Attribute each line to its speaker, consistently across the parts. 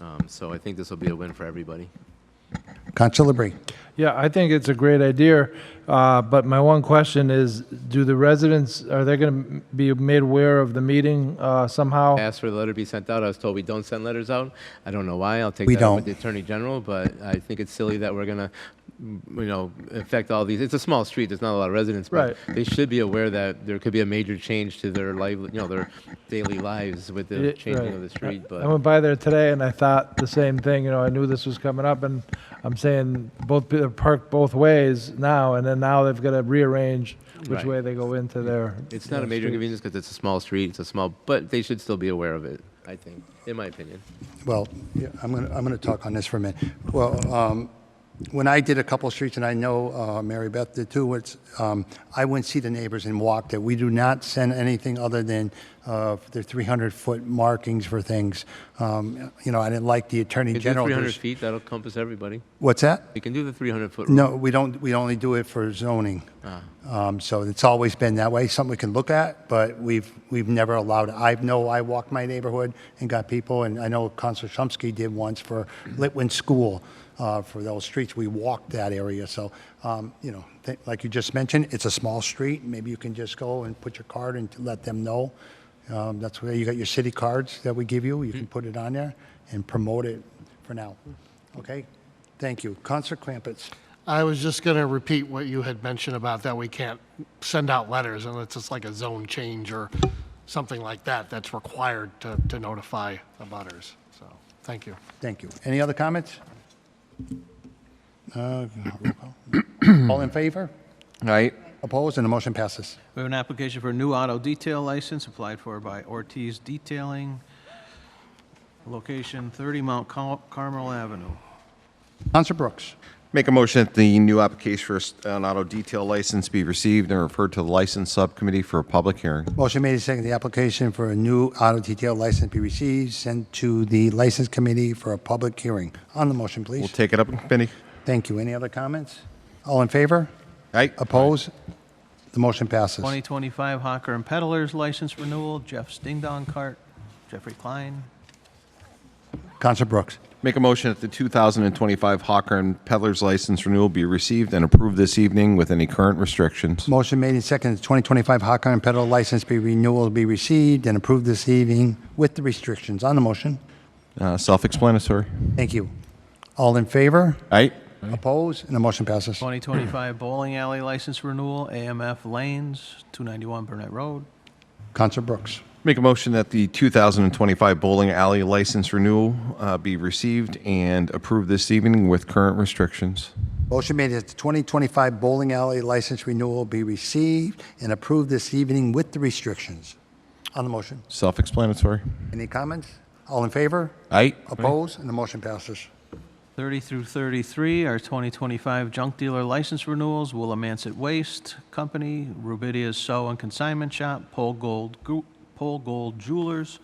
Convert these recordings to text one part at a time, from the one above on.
Speaker 1: Um, So I think this will be a win for everybody.
Speaker 2: Councilor Bree.
Speaker 3: Yeah, I think it's a great idea, uh, but my one question is, do the residents, are they going to be made aware of the meeting uh, somehow?
Speaker 1: I asked for the letter to be sent out. I was told we don't send letters out. I don't know why. I'll take
Speaker 2: We
Speaker 1: that up with the
Speaker 2: don't.
Speaker 1: Attorney General, but I think it's silly that we're going to, you know, affect all these. It's a small street. There's not a lot of residents, but they should be aware that there could be a major change to their life, you know, their daily lives with the
Speaker 3: Yeah,
Speaker 1: changing
Speaker 3: right.
Speaker 1: of the street.
Speaker 3: I
Speaker 1: But
Speaker 3: went by there today and I thought the same thing, you know, I knew this was coming up and I'm saying both, they're parked both ways now and then now they've got to rearrange which
Speaker 1: Right.
Speaker 3: way they go into their.
Speaker 1: it's not
Speaker 3: their
Speaker 1: a major
Speaker 3: street.
Speaker 1: inconvenience because it's a small street. It's a small, but they should still be aware of it, I think, in my opinion.
Speaker 2: Well, yeah, I'm going to, I'm going to talk on this for a minute. Well, um, when I did a couple of streets, and I know uh, Mary Beth did too, it's, um, I went see the neighbors and walked it. We do not send anything other than uh, the 300-foot markings for things. Um, You know, I didn't like the Attorney
Speaker 1: You do
Speaker 2: General.
Speaker 1: 300
Speaker 2: there's-
Speaker 1: feet, that'll compass everybody.
Speaker 2: What's that?
Speaker 1: You can do the 300-foot rule.
Speaker 2: No, we don't, we only do it for zoning. Um, So it's always been that way, something we can look at, but we've, we've never allowed, it. I know I walked my neighborhood and got people, and I know Counselor Shumsky did once for Litwin School, uh, for those streets, we walked that area, so, um, you know, th- like you just mentioned, it's a small street, maybe you can just go and put your card and let them know. Um, That's where you got your city cards that we give you, you can put it on there and promote it for now. Okay? Thank you. Counselor Crampits.
Speaker 4: I was just going to repeat what you had mentioned about that we can't send out letters unless it's like a zone change or something like that that's required to, to notify the butters. So, thank you.
Speaker 2: Thank you. Any other comments? Uh, roll call. All in favor?
Speaker 5: Right.
Speaker 2: Opposed? And the motion passes.
Speaker 6: We have an application for a new auto detail license applied for by Ortiz Detailing, location 30 Mount Car- Carmel Avenue.
Speaker 2: Counselor Brooks.
Speaker 5: Make a motion that the new application for s- an auto detail license be received and referred to the License Subcommittee for a public hearing.
Speaker 2: Motion made and seconded. The application for a new auto detail license be received, sent to the License Committee for a public hearing. On the motion,
Speaker 5: We'll
Speaker 2: please.
Speaker 5: take it up in committee.
Speaker 2: Thank you. Any other comments? All in favor?
Speaker 5: Right.
Speaker 2: Opposed? The motion passes.
Speaker 6: 2025 Hawker and Peddlers license renewal, Jeff's Ding Dong Cart, Jeffrey Klein.
Speaker 2: Counselor Brooks.
Speaker 5: Make a motion that the 2025 Hawker and Peddler's License Renewal be received and approved this evening with any current restrictions.
Speaker 2: Motion made and seconded. 2025 Hawker and Pedal License be renewal be received and approved this evening with the restrictions. On the motion.
Speaker 5: Uh, Self-explanatory.
Speaker 2: Thank you. All in favor?
Speaker 5: Right.
Speaker 2: Opposed? And the motion passes.
Speaker 6: 2025 Bowling Alley license renewal, AMF Lanes, 291 Burnett Road.
Speaker 2: Counselor Brooks.
Speaker 5: Make a motion that the 2025 Bowling Alley License Renewal uh, be received and approved this evening with current restrictions.
Speaker 2: Motion made that the 2025 bowling alley license renewal be received and approved this evening with the restrictions. On the motion,
Speaker 5: Self-explanatory.
Speaker 2: any comments? All in favor?
Speaker 5: Right.
Speaker 2: Opposed? And the motion passes.
Speaker 6: 30 through 33 are 2025 junk dealer license renewals, Willimantic Waste Company, Rubidia's Sew and Consignment Shop, Pole Gold, Gru- Pole Gold Jewelers,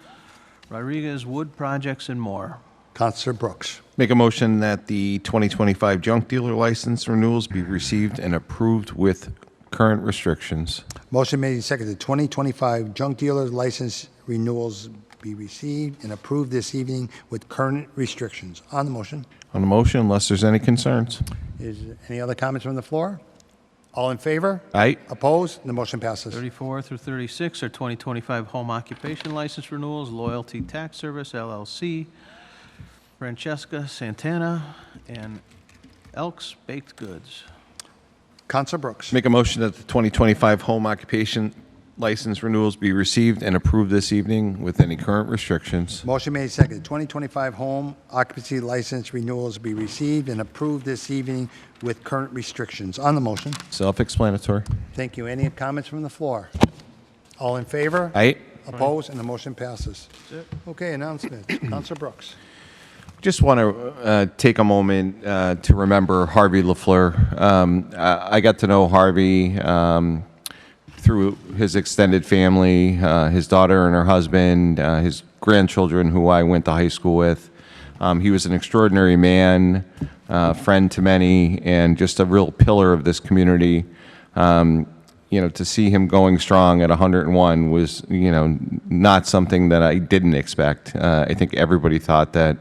Speaker 6: Rodriguez Wood Projects, and more.
Speaker 2: Counselor Brooks.
Speaker 5: Make a motion that the 2025 junk dealer license renewals be received and approved with current restrictions.
Speaker 2: Motion made and seconded. 2025 junk dealer's license renewals be received and approved this evening with current restrictions. On the motion,
Speaker 5: On the motion, unless there's any concerns.
Speaker 2: is any other comments from the floor? All in favor?
Speaker 5: Aye.
Speaker 2: Opposed? And the motion passes.
Speaker 6: 34 through 36 are 2025 home occupation license renewals, Loyalty Tax Service LLC, Francesca Santana, and Elks Baked Goods.
Speaker 2: Counselor Brooks.
Speaker 5: Make a motion that the 2025 home occupation license renewals be received and approved this evening with any current restrictions.
Speaker 2: Motion made second. 2025 home occupancy license renewals be received and approved this evening with current restrictions. On the motion,
Speaker 5: Self-explanatory.
Speaker 2: thank you. Any comments from the floor? All in favor?
Speaker 5: Aye.
Speaker 2: Opposed? And the motion passes. Okay, announcements. Counselor Brooks.
Speaker 5: Just want to uh, take a moment uh, to remember Harvey LaFleur. Um, I, I got to know Harvey um, through his extended family, uh, his daughter and her husband, uh, his grandchildren, who I went to high school with. Um, he was an extraordinary man, uh, friend to many, and just a real pillar of this community. Um, you know, to see him going strong at 101 was, you know, not something that I didn't expect. Uh, I think everybody thought that